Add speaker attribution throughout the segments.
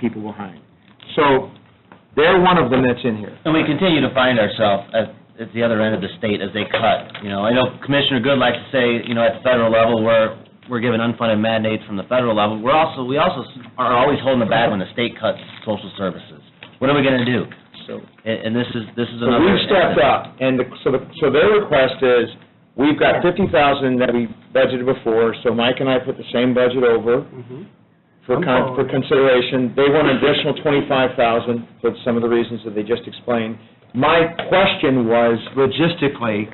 Speaker 1: people behind. So they're one of them that's in here.
Speaker 2: And we continue to find ourselves at, at the other end of the state as they cut, you know. I know Commissioner Good likes to say, you know, at the federal level, we're, we're given unfunded mandates from the federal level. We're also, we also are always holding the bag when the state cuts social services. What are we gonna do?
Speaker 1: So
Speaker 2: And, and this is, this is
Speaker 1: so
Speaker 2: another.
Speaker 1: we've stepped up, and the- so, the- so their request is, we've got fifty thousand that we budgeted before, so Mike and I put the same budget over for con, for consideration. They want an additional twenty-five thousand for some of the reasons that they just explained. My question was logistically,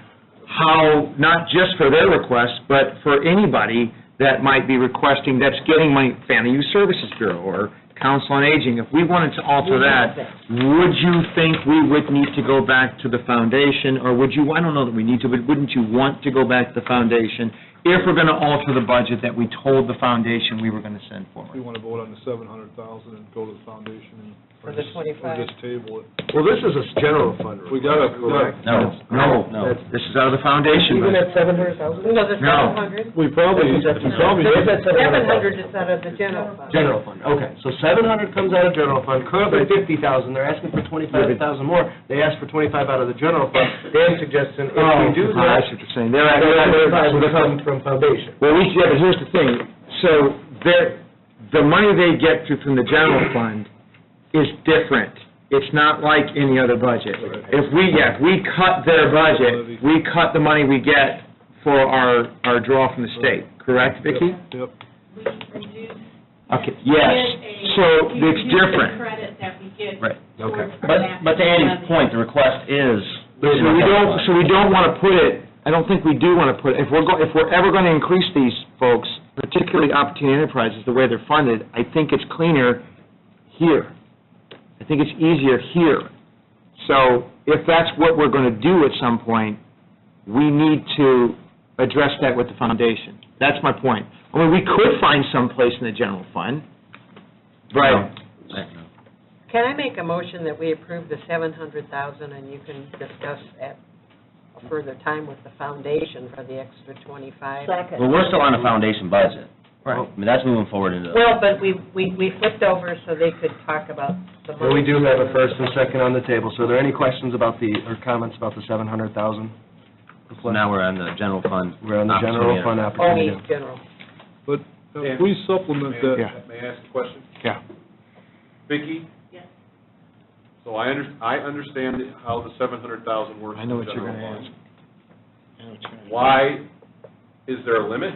Speaker 1: how, not just for their request, but for anybody that might be requesting, that's getting my Family Youth Services Bureau or Council on Aging, if we wanted to alter that, would you think we would need to go back to the foundation, or would you, I don't know that we need to, but wouldn't you want to go back to the foundation if we're going to alter the budget that we told the foundation we were going to send
Speaker 3: We
Speaker 1: forward?
Speaker 3: want to vote on the seven hundred thousand and go to the foundation and.
Speaker 4: For the 25.
Speaker 3: Or just table it.
Speaker 5: Well, this is a general fund.
Speaker 3: We got to,
Speaker 2: No,
Speaker 1: No,
Speaker 2: no.
Speaker 1: this is out of the foundation
Speaker 5: Even
Speaker 1: budget.
Speaker 5: at seven hundred thousand?
Speaker 4: No, the
Speaker 1: No.
Speaker 4: seven hundred.
Speaker 3: we probably, we probably,
Speaker 4: Seven hundred is out of the general fund.
Speaker 5: General fund, okay. So seven hundred comes out of general fund, currently fifty thousand, they're asking for twenty-five thousand more. They asked for twenty-five out of the general fund. Dan's suggestion, if we do
Speaker 1: Oh, I
Speaker 5: that,
Speaker 1: see what you're saying. They're-
Speaker 5: that
Speaker 1: they're-
Speaker 5: twenty-five would come from foundation.
Speaker 1: Well, we, yeah, but here's the thing, so their, the money they get through from the general fund is different. It's not like any other budget. If we, yeah, if we cut their budget, we cut the money we get for our, our draw from the state, correct, Vicki?
Speaker 3: yep.
Speaker 6: We reduce.
Speaker 1: Okay, yes, so
Speaker 6: we
Speaker 1: it's
Speaker 6: reduce the
Speaker 1: different.
Speaker 6: credit that we get.
Speaker 2: Right.
Speaker 6: towards
Speaker 5: Okay.
Speaker 6: our
Speaker 2: But,
Speaker 6: back
Speaker 2: but to Andy's
Speaker 6: levy.
Speaker 2: point, the request is.
Speaker 1: So we don't, so we don't want to put it, I don't think we do want to put, it. if we're, go- if we're ever going to increase these folks, particularly opportunity enterprises, the way they're funded, I think it's cleaner here. I think it's easier here. So if that's what we're going to do at some point, we need to address that with the foundation. That's my point. I mean, we could find some place in the general fund, but
Speaker 4: Can I make a motion that we approve the seven hundred thousand and you can discuss at a further time with the foundation for the extra twenty-five?
Speaker 2: But we're still on a foundation budget.
Speaker 5: Right.
Speaker 2: I mean, that's moving forward into.
Speaker 4: Well, but we, we, we flipped over so they could talk about the money.
Speaker 5: Well, we do have a first and second on the table, so are there any questions about the, or comments about the seven hundred thousand?
Speaker 2: So Now we're on the general fund.
Speaker 5: We're on the general fund
Speaker 4: Only
Speaker 5: opportunity.
Speaker 4: general.
Speaker 3: But if we supplement that,
Speaker 1: Yeah.
Speaker 7: May I ask a question?
Speaker 1: Yeah.
Speaker 7: Vicki?
Speaker 6: Yes.
Speaker 7: So I under, I understand how the seven hundred thousand works.
Speaker 1: I know what you're
Speaker 7: in
Speaker 1: going
Speaker 7: general
Speaker 1: to ask.
Speaker 7: fund.
Speaker 1: I know what you're gonna ask.
Speaker 7: Why, is there a limit?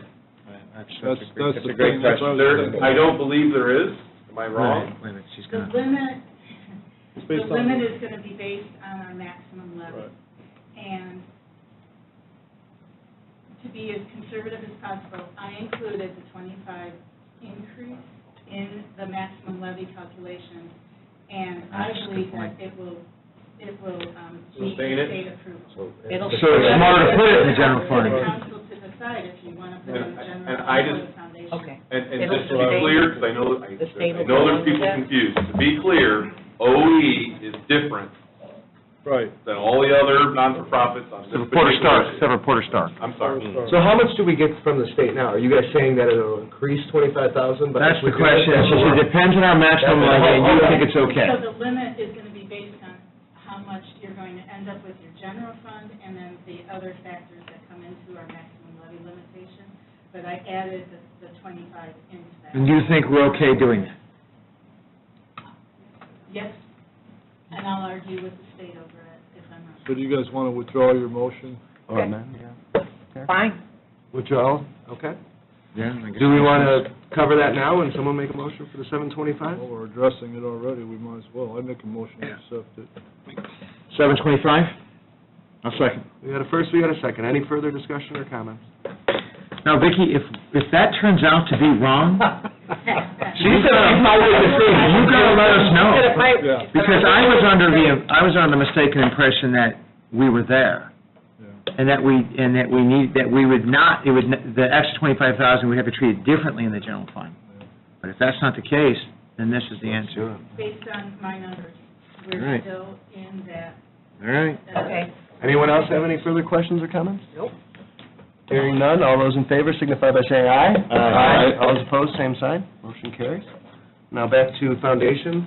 Speaker 3: that's, that's the
Speaker 1: a great
Speaker 3: thing. that's what I was
Speaker 7: There,
Speaker 3: thinking.
Speaker 7: I don't believe there is, am I wrong?
Speaker 1: Wait a minute, she's
Speaker 6: The
Speaker 1: gonna.
Speaker 6: limit,
Speaker 3: It's
Speaker 6: the
Speaker 3: based on-
Speaker 6: limit is going to be based on our maximum
Speaker 3: Right.
Speaker 6: levy. And to be as conservative as possible, I included the twenty-five increase in the maximum levy calculation. And
Speaker 1: That's
Speaker 6: I
Speaker 1: a good
Speaker 6: believe that
Speaker 1: point.
Speaker 6: it will, it will um, meet
Speaker 7: Sustain
Speaker 6: the
Speaker 7: it?
Speaker 6: state approval.
Speaker 1: So it's smarter to put it in the general
Speaker 6: It's up
Speaker 1: fund.
Speaker 6: to the council to decide if you want to put it in the
Speaker 7: And-
Speaker 6: general
Speaker 7: and I
Speaker 6: fund or
Speaker 7: just-
Speaker 6: the foundation.
Speaker 4: Okay.
Speaker 7: And, and
Speaker 4: It'll
Speaker 7: just to be
Speaker 4: sustain-
Speaker 7: clear, because I know, I,
Speaker 4: the state
Speaker 7: I
Speaker 4: will
Speaker 7: know
Speaker 4: go
Speaker 7: there's
Speaker 4: along
Speaker 7: people
Speaker 4: with that.
Speaker 7: confused, to be clear, OE is different
Speaker 3: Right.
Speaker 7: than all the other non-for-profits on this
Speaker 1: So
Speaker 7: particular.
Speaker 1: Reporter Stark, so Reporter Stark.
Speaker 7: I'm sorry.
Speaker 5: So how much do we get from the state now? Are you guys saying that it'll increase twenty-five thousand?
Speaker 1: That's the question, she said, it depends on our maximum
Speaker 5: That's-
Speaker 1: levy, and you
Speaker 5: okay.
Speaker 1: think it's okay.
Speaker 6: So the limit is going to be based on how much you're going to end up with your general fund and then the other factors that come into our maximum levy limitation. But I added the, the twenty-five into that.
Speaker 1: And you think we're okay doing that?
Speaker 6: Yes, and I'll argue with the state over it if I'm wrong.
Speaker 3: So do you guys want to withdraw your motion?
Speaker 5: Oh, man.
Speaker 4: Fine.
Speaker 5: Withdrawal, okay.
Speaker 1: Yeah.
Speaker 5: Do we want to cover that now and someone make a motion for the seven twenty-five?
Speaker 3: Well, we're addressing it already, we might as well. I make a motion to accept it.
Speaker 1: Seven twenty-five? I'll second.
Speaker 5: We had a first, we had a second. Any further discussion or comments?
Speaker 1: Now, Vicki, if, if that turns out to be wrong, she said, "I'm not with the thing." you gotta let us know.
Speaker 3: Yeah.
Speaker 1: Because I was under the, I was under the mistaken impression that we were there,
Speaker 3: Yeah.
Speaker 1: and that we, and that we need, that we would not, it would, n- the extra twenty-five thousand, we'd have to treat it differently in the general fund. But if that's not the case, then this is the answer.
Speaker 6: Based on my numbers,
Speaker 1: Right.
Speaker 6: we're still in that.
Speaker 1: All right.
Speaker 6: uh,
Speaker 4: Okay.
Speaker 5: Anyone else have any further questions or comments?
Speaker 4: Nope.
Speaker 5: Hearing none, all those in favor signify by saying aye.
Speaker 1: Aye.
Speaker 5: All those opposed, same sign. Motion carries. Now back to foundation.